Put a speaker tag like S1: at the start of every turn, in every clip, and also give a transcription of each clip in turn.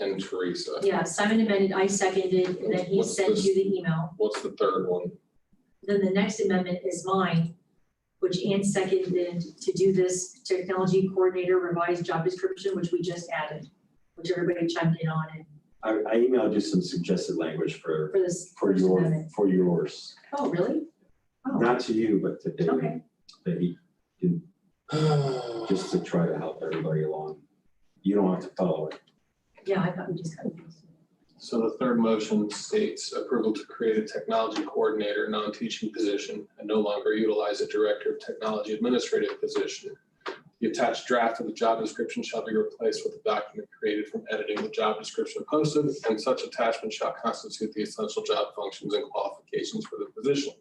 S1: and Teresa.
S2: Yeah, Simon amended, I seconded, and then he
S1: What's
S2: sent
S1: this?
S2: you the email.
S1: What's the third one?
S2: Then the next amendment is mine, which Ann seconded to do this technology coordinator revised job description, which we just added, which everybody chimed in on and
S3: I, I emailed you some suggested language for,
S2: for this
S3: for
S2: first
S3: your,
S2: amendment.
S3: for yours.
S2: Oh, really? Oh,
S3: Not to you, but to David,
S2: Okay.
S3: that he, just to try to help everybody along. You don't have to follow it.
S2: yeah, I thought we just kind of.
S1: So the third motion states approval to create a technology coordinator, non-teaching position, and no longer utilize a director of technology administrative position. The attached draft of the job description shall be replaced with a document created from editing the job description posted, and such attachment shall constitute the essential job functions and qualifications for the position.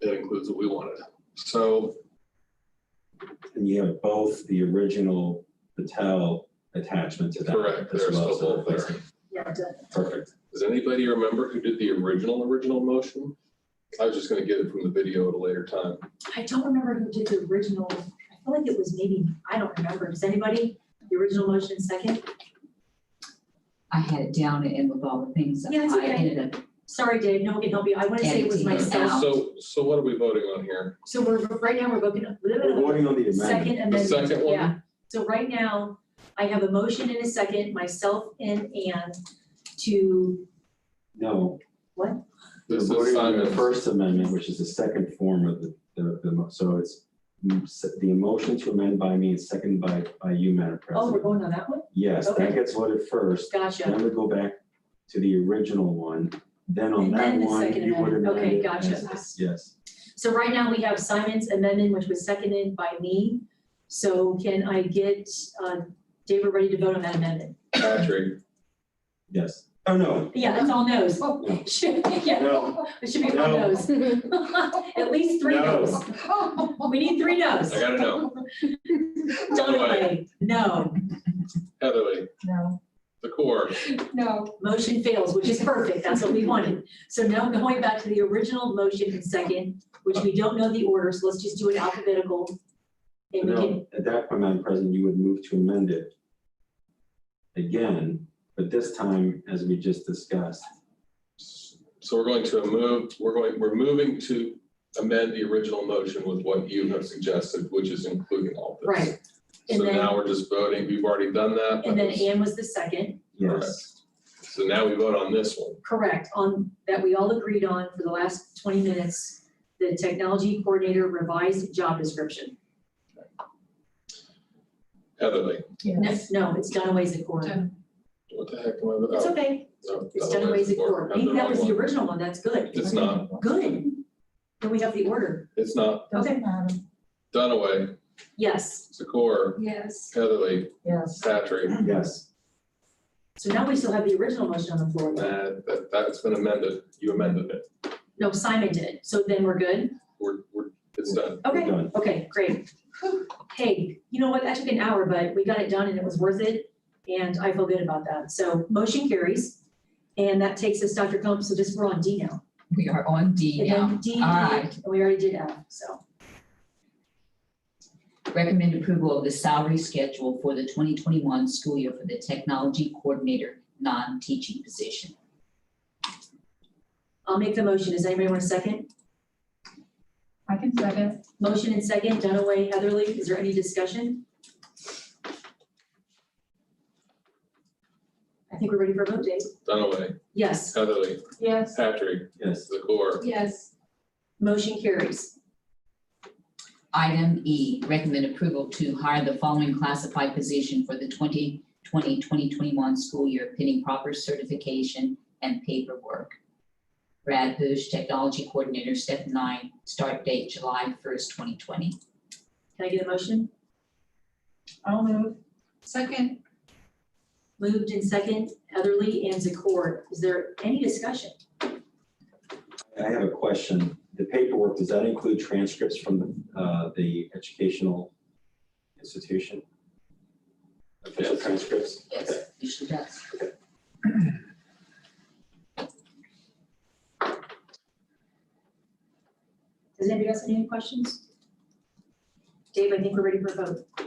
S1: That includes what we wanted. So
S3: And you have both the original Patel attachment to that
S1: Correct,
S3: as
S1: there's
S3: well.
S1: the
S3: so
S1: whole there.
S3: replacing.
S2: Yeah, the-
S3: Perfect.
S1: does anybody remember who did the original, original motion? I was just gonna get it from the video at a later time.
S2: I don't remember who did the original. I feel like it was maybe, I don't remember. Does anybody, the original motion second?
S4: I had it down and with all the things.
S2: Yeah, it's
S4: I
S2: okay.
S4: ended up,
S2: Sorry, Dave, no one can help you. I want to say it was
S4: Editing it
S2: myself.
S4: out.
S1: So, so what are we voting on here?
S2: So we're, right now, we're looking at.
S3: We're voting on the amendment.
S2: Second amendment.
S1: second one?
S2: Yeah, so right now, I have a motion and a second, myself and Ann, to,
S3: No,
S2: what?
S3: we're
S1: This is
S3: voting on the
S1: Simon's.
S3: First Amendment, which is the second form of the, the, the mo- so it's mm, se- the motion to amend by me and second by, by you, Madam
S2: Oh, we're
S3: President.
S2: going on that one?
S3: Yes, that
S2: okay.
S3: gets voted first.
S2: Gotcha.
S3: Then we go back to the original one, then on
S2: And
S3: that
S2: then the
S3: one,
S2: second
S3: you would amend
S2: amendment. Okay,
S3: it
S2: gotcha.
S3: as this. Yes,
S2: So right now, we have Simon's amendment, which was seconded by me. So can I get, uh, David ready to vote on that amendment?
S1: Patrick,
S3: yes. Oh, no,
S2: Yeah, that's all no's. Should- Yeah,
S3: no,
S2: it should be all
S3: No.
S2: no's. At least three
S3: No.
S2: no's. We need three no's.
S1: I gotta know.
S2: Donaway, no.
S1: Heatherly,
S4: no,
S1: the core,
S4: no.
S2: Motion fails, which is perfect, that's what we wanted. So now going back to the original motion and second, which we don't know the order, so let's just do it alphabetical. And we can,
S3: no. At that point, Madam President, you would move to amend it again, but this time, as we just discussed,
S1: so we're going to move, we're going, we're moving to amend the original motion with what you have suggested, which is including all this.
S2: Right. And
S1: So
S2: then-
S1: now we're just voting, we've already done that.
S2: and then
S1: but-
S2: Ann was the second,
S3: yes.
S1: So now we vote on this one.
S2: correct, on, that we all agreed on for the last twenty minutes, the technology coordinator revised job description.
S1: Heatherly,
S2: No, no, it's Dunaway's accord.
S1: what the heck am I?
S2: It's
S1: voting?
S2: okay,
S1: Oh,
S2: it's
S1: Dunaway's
S2: Dunaway's
S1: the core.
S2: accord.
S1: I'm
S2: Maybe that
S1: wrong
S2: was the
S1: one.
S2: original one, that's good.
S1: It's not,
S2: Good. Then we have the order.
S1: it's not.
S2: Okay.
S1: Dunaway,
S2: Yes,
S1: Zakor,
S4: Yes.
S1: Heatherly,
S4: Yes.
S1: Patrick,
S3: Yes,
S2: so now we still have the original motion on the floor.
S1: Nah, that, that's been amended. You amended it.
S2: No, Simon did, so then we're good?
S1: We're, we're, it's done.
S3: we're
S2: Okay,
S3: done.
S2: okay, great. Hey, you know what, that took an hour, but we got it done and it was worth it, and I feel good about that. So motion carries, and that takes us, Dr. Combs, so just, we're on D now.
S4: We are on um, D
S2: And
S4: now.
S2: then D,
S4: All right.
S2: and we already did F, so.
S4: Recommend approval of the salary schedule for the twenty twenty-one school year for the technology coordinator, non-teaching position.
S2: I'll make the motion, does anybody want a second?
S5: I can second.
S2: Motion and second, Dunaway, Heatherly, is there any discussion? I think we're ready for a vote, Dave.
S1: Dunaway,
S2: Yes.
S1: Heatherly,
S5: Yes.
S1: Patrick,
S3: yes.
S1: Zakor,
S5: Yes.
S2: Motion carries.
S4: Item E, recommend approval to hire the following classified position for the 2020-2021 school year pending proper certification and paperwork. Brad Bush, Technology Coordinator, step nine, start date July first, twenty twenty.
S2: Can I get a motion?
S5: I'll move. Second.
S2: Moved and second, Heatherly and Zakor. Is there any discussion?
S3: I have a question. The paperwork, does that include transcripts from the, uh, the educational institution? Official
S1: Yes.
S3: transcripts? Okay.
S4: Yes, usually does.
S2: Does anybody else have any questions? Dave, I think we're ready for a vote.